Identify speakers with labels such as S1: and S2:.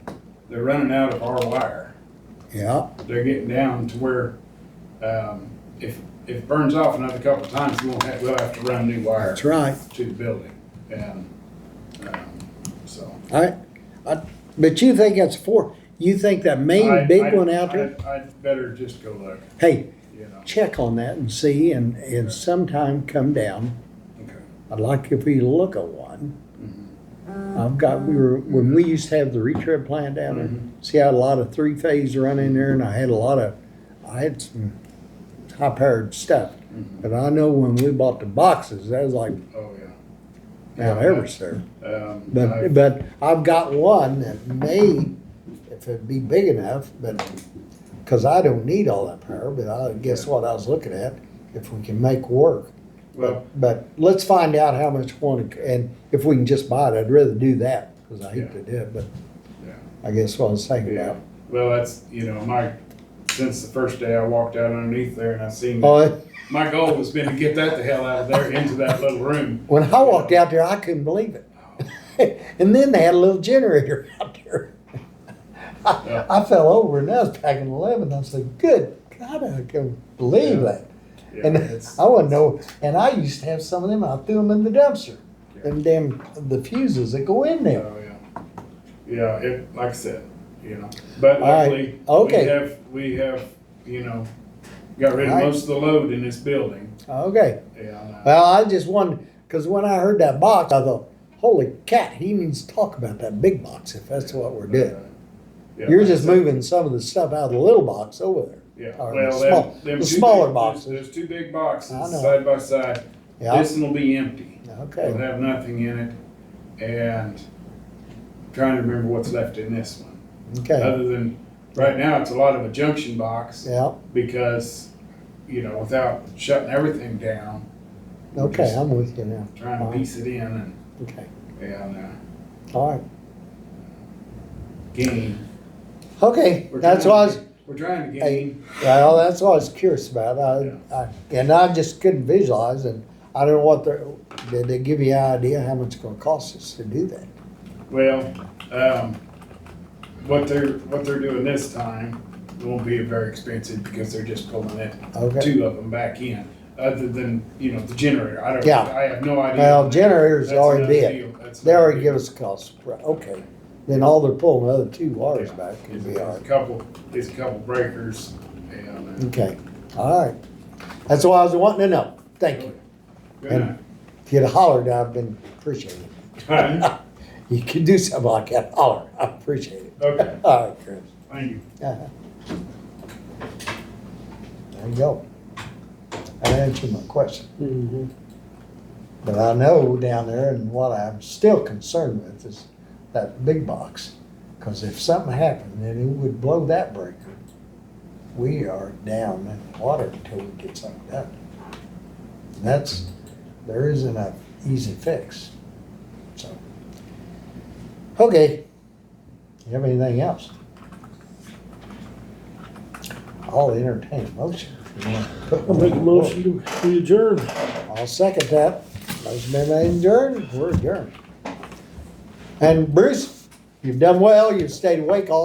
S1: they're running out of our wire.
S2: Yeah,
S1: They're getting down to where, um, if, if it burns off another couple of times, we won't have, we'll have to run new wire
S2: that's right.
S1: to the building. And, um, so.
S2: I, I, but you think that's four, you think that main
S1: I-
S2: big
S1: I-
S2: one out there?
S1: I- I'd better just go look,
S2: Hey,
S1: you know,
S2: check on that and see and, and sometime come down.
S1: okay.
S2: I'd like if you look at one.
S1: Mhm.
S2: I've got, we were, when we used to have the retread plant down there,
S1: Mm-hmm.
S2: see, I had a lot of three phase run in there and I had a lot of, I had some high powered stuff.
S1: Mhm.
S2: But I know when we bought the boxes, that was like
S1: Oh, yeah.
S2: now
S1: Yeah,
S2: ever, sir.
S1: Um, I-
S2: But, but I've got one that may, if it'd be big enough, but, cause I don't need all that power, but I, guess what I was looking at, if we can make work.
S1: well,
S2: But, but let's find out how much one, and if we can just buy it, I'd rather do that, cause I hate to do it, but
S1: Yeah.
S2: I guess what I was thinking
S1: yeah.
S2: about.
S1: Well, that's, you know, my, since the first day I walked out underneath there and I seen,
S2: Oh, it-
S1: my goal has been to get that the hell out of there into that little room.
S2: when I walked out there, I couldn't believe it. And then they had a little generator out there. I, I fell over and that was back in eleven, I said, good God, I couldn't believe
S1: Yeah.
S2: that.
S1: Yeah,
S2: And
S1: it's-
S2: I wouldn't know. And I used to have some of them. I threw them in the dumpster. Them damn the fuses that go in there.
S1: Oh, yeah. Yeah, it, like I said, you know, but
S2: All right.
S1: luckily, we
S2: Okay.
S1: have, we have, you know, got rid of
S2: All right.
S1: most of the load in this building.
S2: Okay.
S1: And, uh,
S2: Well, I just wondered because when I heard that box, I thought, "Holy cat! He needs to talk about that big box if that's what we're doing."
S1: uh, yeah,
S2: You're
S1: like I
S2: just
S1: said,
S2: moving some of the stuff out of the little box over there.
S1: Yeah,
S2: or
S1: well,
S2: the small-
S1: them, them
S2: the
S1: two
S2: smaller
S1: big-
S2: boxes.
S1: There's there's two big boxes,
S2: I know.
S1: side by side.
S2: Yeah.
S1: This one will be empty. It'll
S2: Okay.
S1: have nothing in it, and I'm trying to remember what's left in this one.
S2: Okay.
S1: Other than, right now, it's a lot of a junction box,
S2: Yeah.
S1: because, you know, without shutting everything down,
S2: Okay. I'm with you now.
S1: trying to piece it in and,
S2: Okay.
S1: and uh,
S2: All right.
S1: gain.
S2: Okay.
S1: We're
S2: That's
S1: trying
S2: why I
S1: to-
S2: was.
S1: We're trying to
S2: Hey.
S1: gain,
S2: Well, that's what I was curious about. I, I, and I just couldn't visualize and I don't know what they're, did they give you an idea how much it's gonna cost us to do that?
S1: well, um, what they're, what they're doing this time won't be very expensive, because they're just pulling it
S2: Okay.
S1: two of them back in, other than, you know, the generator. I don't,
S2: Yeah.
S1: I have no idea.
S2: Well, generators
S1: That's
S2: already
S1: another
S2: did.
S1: deal. That's
S2: They
S1: another
S2: already
S1: deal.
S2: give us a cost, Right, okay. Then all they're pulling, the other two wires
S1: Yeah.
S2: back could
S1: It's
S2: be all
S1: a
S2: right.
S1: couple, it's a couple breakers and, uh,
S2: Okay, all right. That's what I was wanting to know. Thank you.
S1: good
S2: And-
S1: night.
S2: If you'd hollered, I've been appreciating it.
S1: Alright,
S2: You could do something like that, holler. I appreciate it.
S1: Okay,
S2: All right, Chris.
S1: thank you.
S2: Uh-huh. There you go. That answered my question. But I know down there, and what I'm still concerned with is that big box. Because if something happened, then it would blow that breaker. We are down in the water until we get something done. And that's, there isn't a easy fix, so. Okay. You have anything else? I'll entertain a motion. if you want to put
S3: I'll
S2: one
S3: make a
S2: on the floor.
S3: motion to adjourn.
S2: I'll second that. Motion been made and adjourned, we're adjourned. And Bruce, you've done well, you've stayed awake all